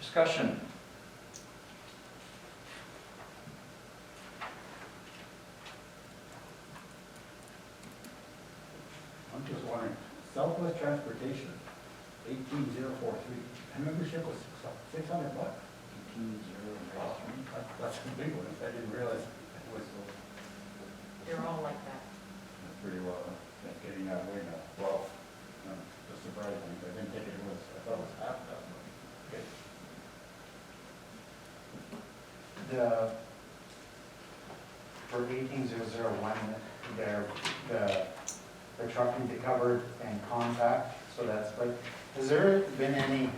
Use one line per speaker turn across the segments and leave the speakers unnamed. Discussion.
I'm just wondering, Southwest Transportation, eighteen zero four three, membership was six hundred bucks?
Eighteen zero zero three.
That- That's a big one, I didn't realize it was so,
They're all like that.
that's pretty well, huh? that's getting out of way now. Wow. That's surprising, I didn't think it was, I thought it was half that much. Okay.
The, for eighteen zero zero one, there, the, the trucking to covered and compact, so that's, but has there been any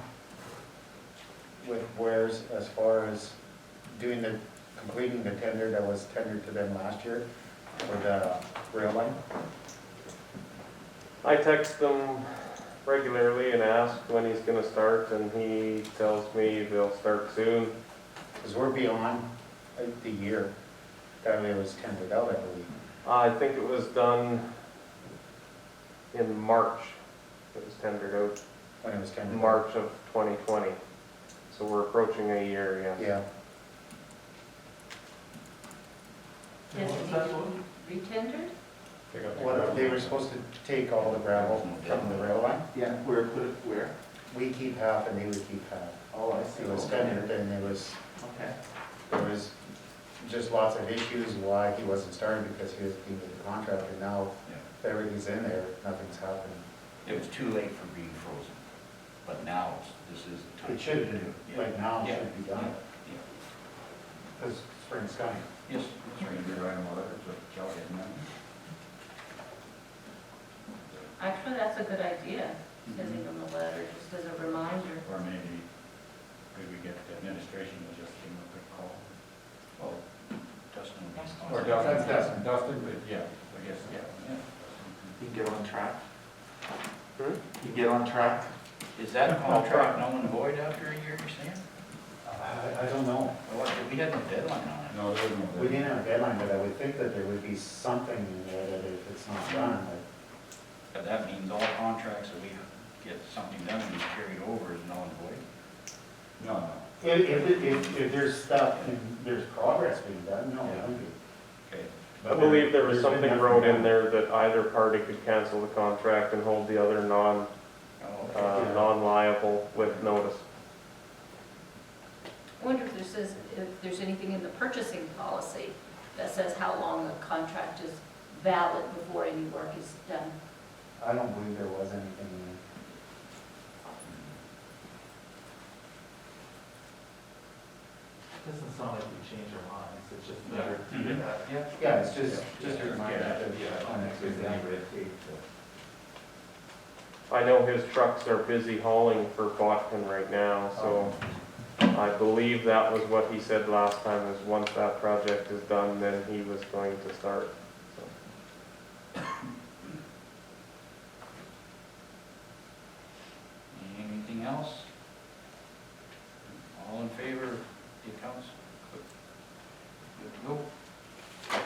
with wares as far as doing the, completing the tender that was tendered to them last year for the rail line?
I text him regularly and ask when he's gonna start, and he tells me they'll start soon.
Because we're beyond uh, the year that it was tendered out, I believe.
Uh, I think it was done in March, it was tendered out,
when it was kind of.
March of 2020. So we're approaching a year, yes.
Yeah,
Yes,
What was
we-
that one?
Retendered?
well, they were supposed to take all the gravel from the rail line.
Yeah, where, put it where?
We keep half and they would keep half.
Oh, I
It was tendered and it was,
Okay.
there was just lots of issues why he wasn't starting because he was deemed the contractor. Now, if everything's in there, nothing's happened.
It was too late for being frozen, but now it's- this is the time.
It should be,
Yeah.
like now it should be
Yeah.
done,
Yeah.
because spring's coming.
Yes,
That's
that's
right,
right.
you're right, well, that's what Kelly had meant.
Actually, that's a good idea, sending them a letter just as a reminder.
Or maybe, could we get the administration to just give them a quick call?
Well, Dustin will be
Or
calling.
Dustin,
That's
Dustin, Dustin,
Dustin.
but yeah, I guess, yeah. yeah.
You can get on track.
Hmm?
You can get on track.
Is that contract null and void after a year, you're saying?
I, I don't know.
Well, what- we had no deadline on it.
No, there was no.
We didn't have a deadline, but I would think that there would be something in there that if it's not done, like,
But that means all contracts that we get something done and carried over is null and void.
No, no.
If, if, if, if there's stuff, and there's progress being done, no, it wouldn't be.
Okay.
I believe there was something wrote in there that either party could cancel the contract and hold the other non,
Oh, okay.
uh,
Yeah.
non-liable with notice.
I wonder if there says, if there's anything in the purchasing policy that says how long a contract is valid before any work is done.
I don't believe there was anything in
Doesn't sound like we change our minds, it's just better
Mm-hmm.
to do that.
Yeah.
there. Yeah, it's just, just a reminder that
Yeah,
it's been done.
I know his trucks are busy hauling for Botkin right now, so I believe that was what he said last time, is once that project is done, then he was going to start.
Anything else? All in favor of the accounts? Good to go.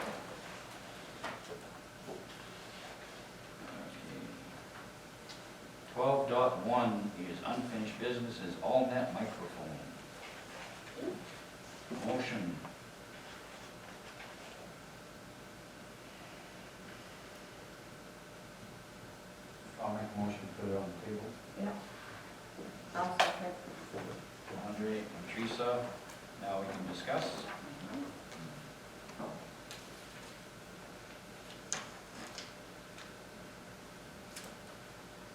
Twelve dot one is unfinished business is all net microphone. Motion.
I'll make a motion to put it on the table.
Yeah. I'll second.
Andre and Teresa, now we can discuss.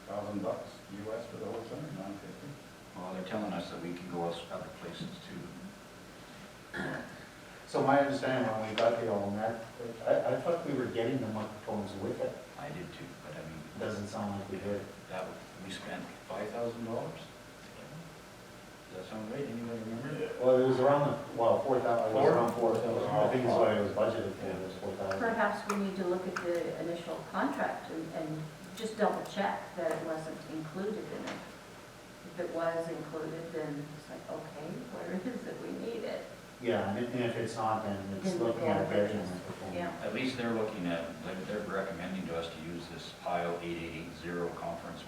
Thousand bucks US for the whole thing, nine fifty.
Well, they're telling us that we can go else- other places too.
So my understanding when we got the all net, I, I thought we were getting the microphones with it.
I did too, but I mean.
It Doesn't sound like we did.
That, would- we spent five thousand dollars? Does that sound right? Anybody remember?
Well, it was around, the- well, four thousand, it was
Four?
around four thousand. I think that's why it was budgeted for, it was four thousand.
Perhaps we need to look at the initial contract and, and just double check that it wasn't included in it. If it was included, then it's like, okay, where is it? We need it.
Yeah, and if- and if it's not, then it's
Then
looking at
yeah.
getting the microphone.
Yeah.
At least they're looking at, they're- they're recommending to us to use this pile eight eight eight zero conference